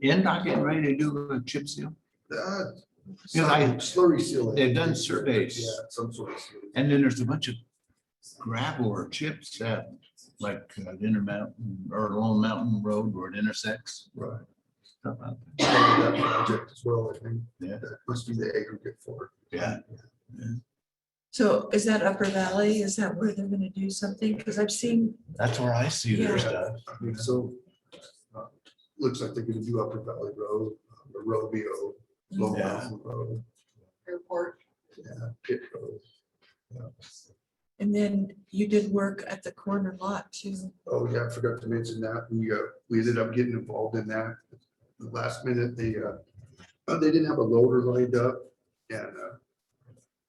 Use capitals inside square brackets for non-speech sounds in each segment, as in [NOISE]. You're not getting ready to do a chip seal? Uh, You know, I- Slurry seal. they've done surveys. Yeah, some sort of. seal. And then there's a bunch of gravel or chips that, like, uh, Intermountain or Lone Mountain Road where it intersects. Right. Stuff out there. That project as well, I think. Yeah. That must be the aggregate for. Yeah, So is that Upper Valley? Is that where they're gonna do something? Because I've seen, that's where I see their Yeah. stuff. I mean, So. uh, Looks like they're gonna do Upper Valley Road, uh, Robio, Long Yeah. Mountain Road, airport. yeah, Pitt Road. Yeah. and then you did work at the corner lot too. Oh, yeah, I forgot to mention that. We, uh, we ended up getting involved in that. The Last minute, they, uh, uh, they didn't have a loader lined up and, uh,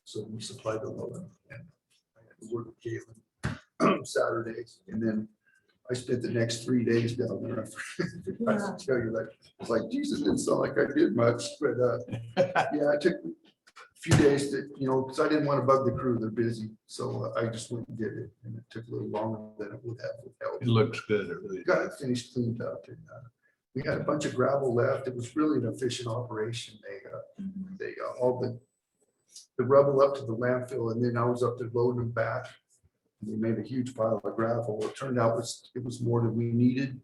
so we supplied the loader and I had to work with Galen Saturdays. And then I spent the next three days down there. [LAUGHS] I Yeah. should tell you like, it's like, Jesus, didn't sound like I did much, but, uh, yeah, I took a few days to, you know, because I didn't want to bug the crew. They're busy. So uh, I just went and did it and it took a little longer than it would have without It looks good, it really. got it finished cleaned up and uh, we had a bunch of gravel left. It was really an efficient operation. They, uh, Mm-hmm. they, uh, all the, the rubble up to the landfill and then I was up there loading them back. And They made a huge pile of gravel. It turned out was, it was more than we needed.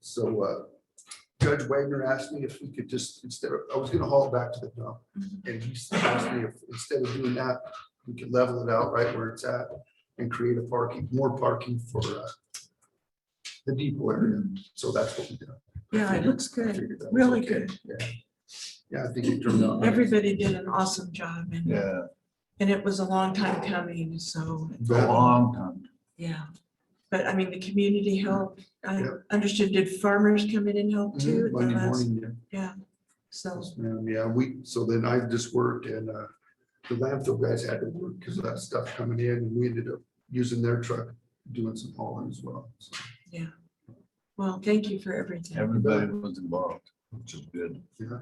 So uh, Judge Wagner asked me if we could just, instead of, I was gonna haul it back to the dump. And he asked me if, instead of doing that, we could level it out right where it's at and create a parking, more parking for uh, the depot area. So that's what we did. Yeah, it looks I good. figured that was Really okay. good. Yeah. Yeah, I think it turned out. Everybody did an awesome job and, Yeah, and it was a long time coming, so, it's a long time. yeah. But I mean, the community helped. I Yep. understood, did farmers come in and help Mhm, too? at the Monday last- morning, yeah. Yeah, so, Yes, ma'am. Yeah, we, so then I just worked and uh, the landfill guys had to work because of that stuff coming in and we ended up using their truck, doing some hauling as well. So, yeah. Well, thank you for everything. Everybody was involved, which is good. yeah.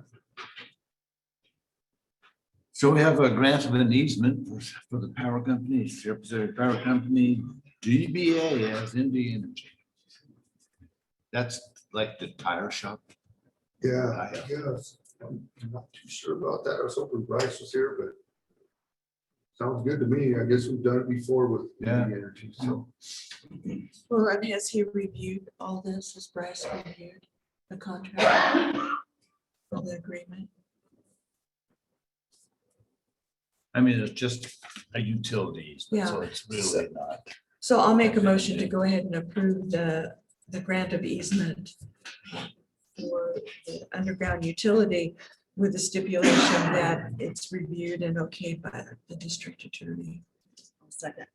So we have a grant of an easement for, for the power company, Shep- the Power Company, DBA as ND Energy. That's like the tire shop. Yeah, I I guess. I'm not too sure about that. I was hoping Bryce was here, but sounds good to me. I guess we've done it before with the Yeah. energy, so. Well, and has he reviewed all this? Has Bryce reviewed the contract? Or the agreement? I mean, it's just a utility easement, so it's really not. So I'll make a motion to go ahead and approve the, the grant of easement for the underground utility with the stipulation that it's reviewed and okayed by the district attorney. Second.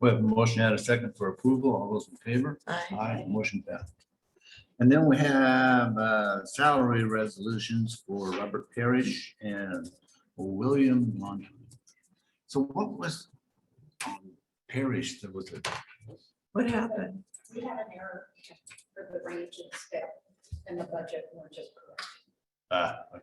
We have a motion and a second for approval. All those in favor? Aye. Aye, motion passed. And then we have uh, salary resolutions for Robert Parrish and William Monty. So what was on Parrish, there was a, What happened? We had an error for the range and step and the budget weren't just correct. ah, okay.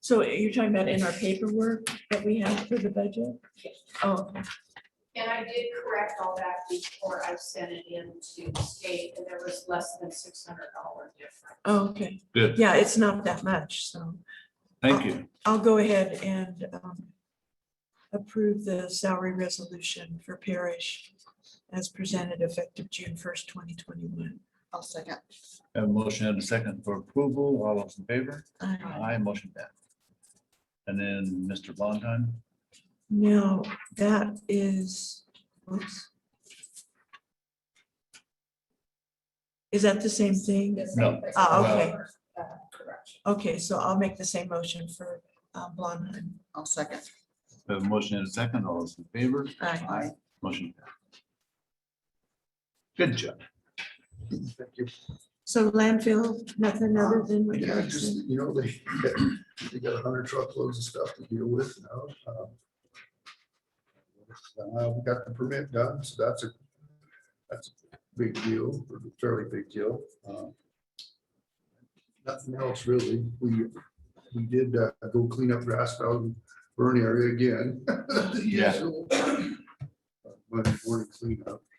So you're talking about in our paperwork that we have for the budget? Yes. Oh, And I did correct all that before I sent it in to the state and there was less than six hundred dollar difference. oh, okay. Good. Yeah, it's not that much, so. thank you. I'll go ahead and um, approve the salary resolution for Parish as presented effective June first, twenty twenty-one. I'll second. Have a motion and a second for approval. All those in favor? Uh, Aye, motion passed. And then Mr. Blondheim? Now, that is, oops. Is that the same thing? No. Ah, okay. Correction. Okay, so I'll make the same motion for uh, Blondheim. I'll second. Have a motion and a second. All those in favor? Aye. Motion. passed. Good job. Thank you. So landfill, nothing other than. what you Yeah, already just, said. you know, they, they got a hundred truckloads of stuff to deal with now. um, uh, We got the permit done, so that's a, that's a big deal, or a fairly big deal. um, Nothing else really. We, we did uh, go clean up grass valley burn area again. [LAUGHS] Yeah. But morning cleanup.